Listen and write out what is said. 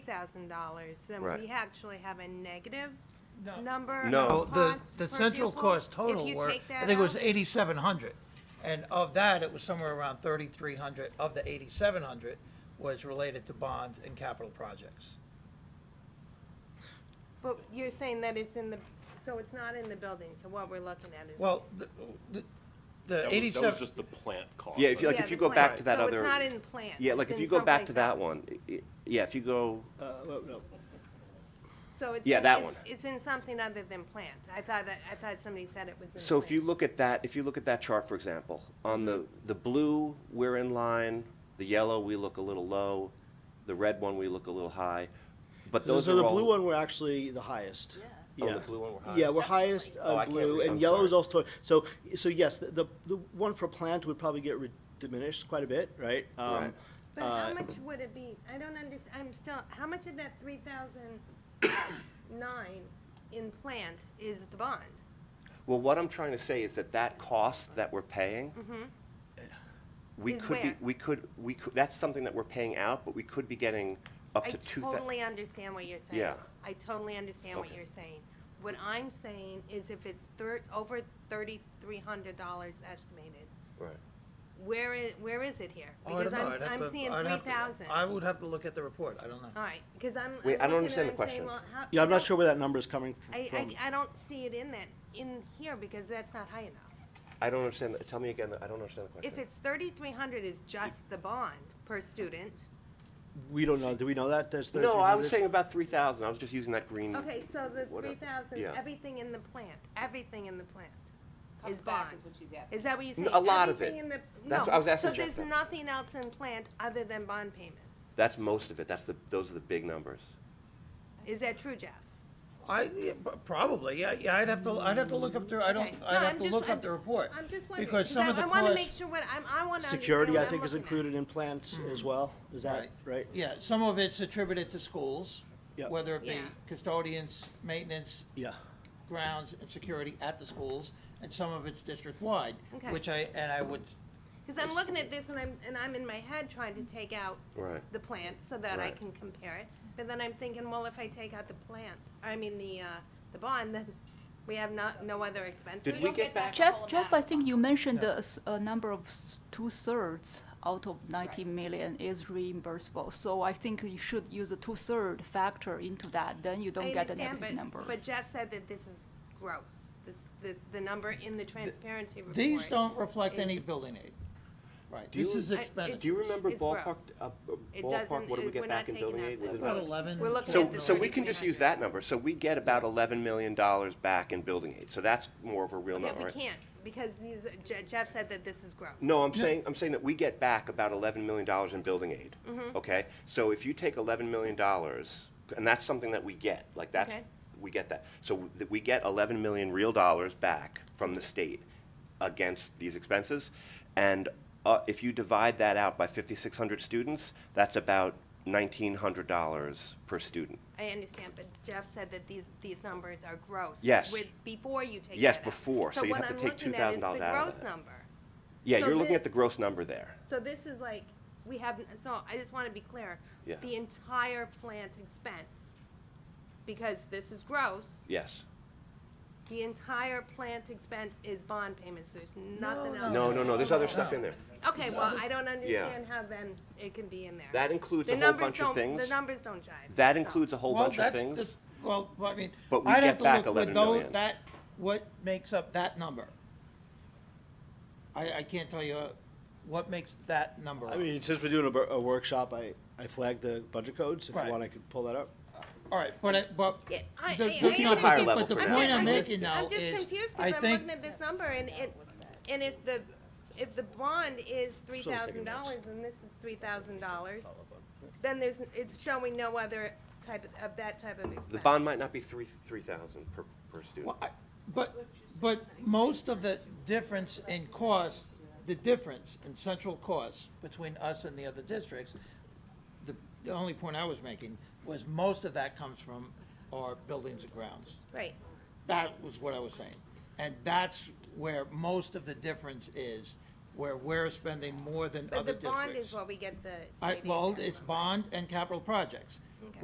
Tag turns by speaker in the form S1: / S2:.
S1: thousand dollars, then
S2: Right.
S1: we actually have a negative
S3: No.
S1: number
S2: No.
S1: of
S2: Oh,
S3: No, the,
S1: costs
S3: the
S1: per
S3: central
S1: pupil?
S3: cost
S1: If
S3: total
S1: you
S3: were,
S1: take
S3: I
S1: that
S3: think it was
S1: out,
S3: eighty-seven hundred. And of that, it was somewhere around thirty-three hundred of the eighty-seven hundred was related to bond and capital projects.
S1: But you're saying that it's in the, so it's not in the building, so what we're looking at is.
S3: Well, the, the- the
S4: That was, that was
S3: eighty-seven,
S4: just the plant cost.
S2: Yeah, if you, like,
S1: Yeah,
S2: if you
S1: the
S2: go back to
S1: plan.
S2: that
S1: So
S2: other.
S1: it's not in plan.
S2: Yeah, like,
S1: It's
S2: if
S1: in
S2: you go back
S1: someplace
S2: to that
S1: else.
S2: one, i- i- yeah, if you go,
S5: Uh,
S1: So it's.
S2: yeah, that
S1: it's-
S2: one.
S1: It's in something other than plant. I thought that, I thought somebody said it was in.
S2: So if you
S1: plant.
S2: look at that, if you look at that chart, for example, on the, the blue, we're in line, the yellow, we look a little low, the red one, we look a little high, but those are all.
S5: the blue one were actually the highest.
S2: Oh,
S5: Yeah.
S2: the blue one were
S5: Yeah,
S2: highest?
S5: we're highest
S2: Oh, I
S5: on
S2: can't
S5: blue,
S2: read, I'm
S5: and yellow is
S2: sorry.
S5: also, so, so yes, the, the, the one for plant would probably get re- diminished quite a bit, right? Um,
S2: Right.
S1: But how
S5: uh,
S1: much would it be? I don't understand, I'm still, how much of that three thousand nine in plant is the bond?
S2: Well, what I'm trying to say is that that cost that we're paying, we
S1: Mm-hmm. Is
S2: could be,
S1: where?
S2: we could, we could, that's something that we're paying out, but we could be getting up to two
S1: I
S2: thousand.
S1: totally understand what you're saying.
S2: Yeah.
S1: I totally understand what
S2: Okay.
S1: you're saying. What I'm saying is if it's thir- over thirty-three hundred dollars estimated,
S2: Right.
S1: where is, where is it here?
S3: Oh, I
S1: Because
S3: don't know.
S1: I'm,
S3: I'd have
S1: I'm
S3: to-
S1: seeing
S3: I'd
S1: three
S3: have to-
S1: thousand.
S3: I
S1: All
S3: would have to look at the report, I don't know.
S1: right, because I'm, I'm
S2: Wait, I don't
S1: looking
S2: understand
S1: and
S2: the
S1: I'm saying,
S2: question.
S1: well, how?
S5: Yeah, I'm
S1: how-
S5: not sure where that number's coming f-
S1: I,
S5: from.
S1: I, I don't see it in that, in here, because that's not high enough.
S2: I don't understand, the- tell me again, I don't understand the question.
S1: If it's thirty-three hundred is just the bond per student.
S5: We don't know, do we know that, there's thirty-three
S2: No,
S5: hundred?
S2: I was saying about three thousand, I was just using that green.
S1: Okay, so the
S2: whatever.
S1: three thousand,
S2: Mm. Yeah.
S1: everything in the plant, everything in the plant
S6: Comes
S1: is
S6: back
S1: bond.
S6: is what she's asking.
S1: Is that what you're
S2: N-
S1: saying?
S2: a lot of
S1: Everything
S2: it.
S1: in the-
S2: That's
S1: no.
S2: what I was asking Jeff
S1: So
S2: that.
S1: there's nothing else in plant other than bond payments.
S2: That's most of it, that's the, those are the big numbers.
S1: Is that true, Jeff?
S3: I, yeah, p- probably, yeah, yeah, I'd have to, I'd have to look up the, I don't,
S1: Okay. No,
S3: I'd
S1: I'm
S3: have to
S1: just-
S3: look
S1: I'm-
S3: up the report.
S1: I'm just wondering,
S3: Because
S1: because
S3: some
S1: I
S3: of the
S1: I wanna make
S3: costs-
S1: sure what, I'm, I wanna understand
S5: Security,
S1: what
S5: I
S1: I'm
S5: think, is
S1: looking at. Mm-hmm.
S5: included in plant as well, is that, right?
S3: Yeah, some of it's attributed to schools,
S5: Yep.
S3: whether it be
S1: Yeah.
S3: custodians, maintenance,
S5: Yeah,
S3: grounds, and security at the schools, and some of it's district-wide,
S1: Okay.
S3: which I, and I would,
S1: Cause I'm looking at this and I'm, and I'm in my head trying to take out
S2: Right.
S1: the plant so that I
S2: Right.
S1: can compare it. But then I'm thinking, well, if I take out the plant, I mean, the, uh, the bond, then we have not, no other expenses.
S2: Did we get back,
S6: whole
S7: Jeff, Jeff, I
S6: amount.
S7: think you mentioned the s- a number of s- two-thirds out of 90 million is reimbursable. So I think you should use the two-third factor into that, then you
S1: I
S7: don't get the
S1: understand,
S7: negative
S1: but-
S7: number.
S1: But Jeff said that this is gross, this, the, the number in the transparency report.
S3: these don't reflect any building aid. Right,
S2: you-
S3: this is
S1: I- it-
S2: do
S3: expenditure.
S2: you remember
S1: It's
S2: ballpark,
S1: gross.
S2: uh, uh,
S1: It
S2: ballpark,
S1: doesn't-
S2: what do we
S1: it- we're
S2: get
S1: not
S2: back in
S1: taking
S2: building
S1: out
S2: aid?
S1: the-
S2: Was it
S3: About
S2: not-
S3: eleven.
S1: We're looking
S2: So,
S1: at the
S2: so we can just
S1: 3,300.
S2: use that number, so we get about eleven million dollars back in building aid, so that's more of a real
S1: Okay,
S2: number,
S1: we
S2: right?
S1: can't, because these, Je- Jeff said that this is gross.
S2: No, I'm saying, I'm saying that we get back about eleven million dollars in building aid,
S1: Mm-hmm.
S2: okay? So if you take eleven million dollars, and that's something that we get, like that's,
S1: Okay.
S2: we get that. So that we get eleven million real dollars back from the state against these expenses. And uh, if you divide that out by fifty-six hundred students, that's about nineteen hundred dollars per student.
S1: I understand, but Jeff said that these, these numbers are gross.
S2: Yes.
S1: With, before you take
S2: Yes,
S1: that out.
S2: before, so you have to take $2,000
S1: what I'm looking at
S2: out of
S1: is the gross
S2: that.
S1: number.
S2: Yeah,
S1: So
S2: you're looking
S1: the-
S2: at the gross number there.
S1: So this is like, we have, so I just want to be clear.
S2: Yes.
S1: The entire plant expense, because this is gross,
S2: Yes.
S1: the entire plant expense is bond payments, there's nothing else.
S2: No, no, no, there's other stuff in there.
S1: Okay, well, I don't understand how then it can be in there.
S2: That includes
S1: The
S2: a whole
S1: numbers
S2: bunch of
S1: don't-
S2: things.
S1: The numbers don't jive.
S2: That
S1: so.
S2: includes a whole
S3: Well,
S2: bunch of
S3: that's
S2: things.
S3: the- Well, I mean,
S2: But we
S3: I'd have
S2: get
S3: to
S2: back
S3: look with
S2: 11
S3: those,
S2: million.
S3: that, what makes up that number? I, I can't tell you uh, what makes that number
S5: I
S3: up.
S5: mean, since we're doing a, bur- a workshop, I, I flagged the budget codes, if you
S3: Right.
S5: want, I could pull that up.
S3: All right, but, I- but.
S1: Yeah, I-
S3: the-
S1: I-
S3: the-
S1: I Looking at
S2: higher level
S3: But the
S2: for
S1: I'm
S2: now.
S3: point
S1: just-
S3: I'm
S1: I'm just-
S3: making now
S1: I'm just
S3: is,
S1: confused
S3: I
S1: because I'm
S3: think
S1: looking at this number and it, and if the, if the bond is three thousand dollars and this is three thousand dollars, then there's, it's showing no other type of, of that type of expense.
S2: The bond might not be three, three thousand per, per student.
S3: Well, I- But, but most of the difference in cost, the difference in central costs between us and the other districts, the, the only point I was making was most of that comes from our buildings and grounds.
S1: Right,
S3: That was what I was saying. And that's where most of the difference is, where we're spending more than
S1: but
S3: other
S1: the
S3: districts.
S1: bond is what we get the.
S3: I,
S1: state aid
S3: well,
S1: for.
S3: it's bond and capital projects.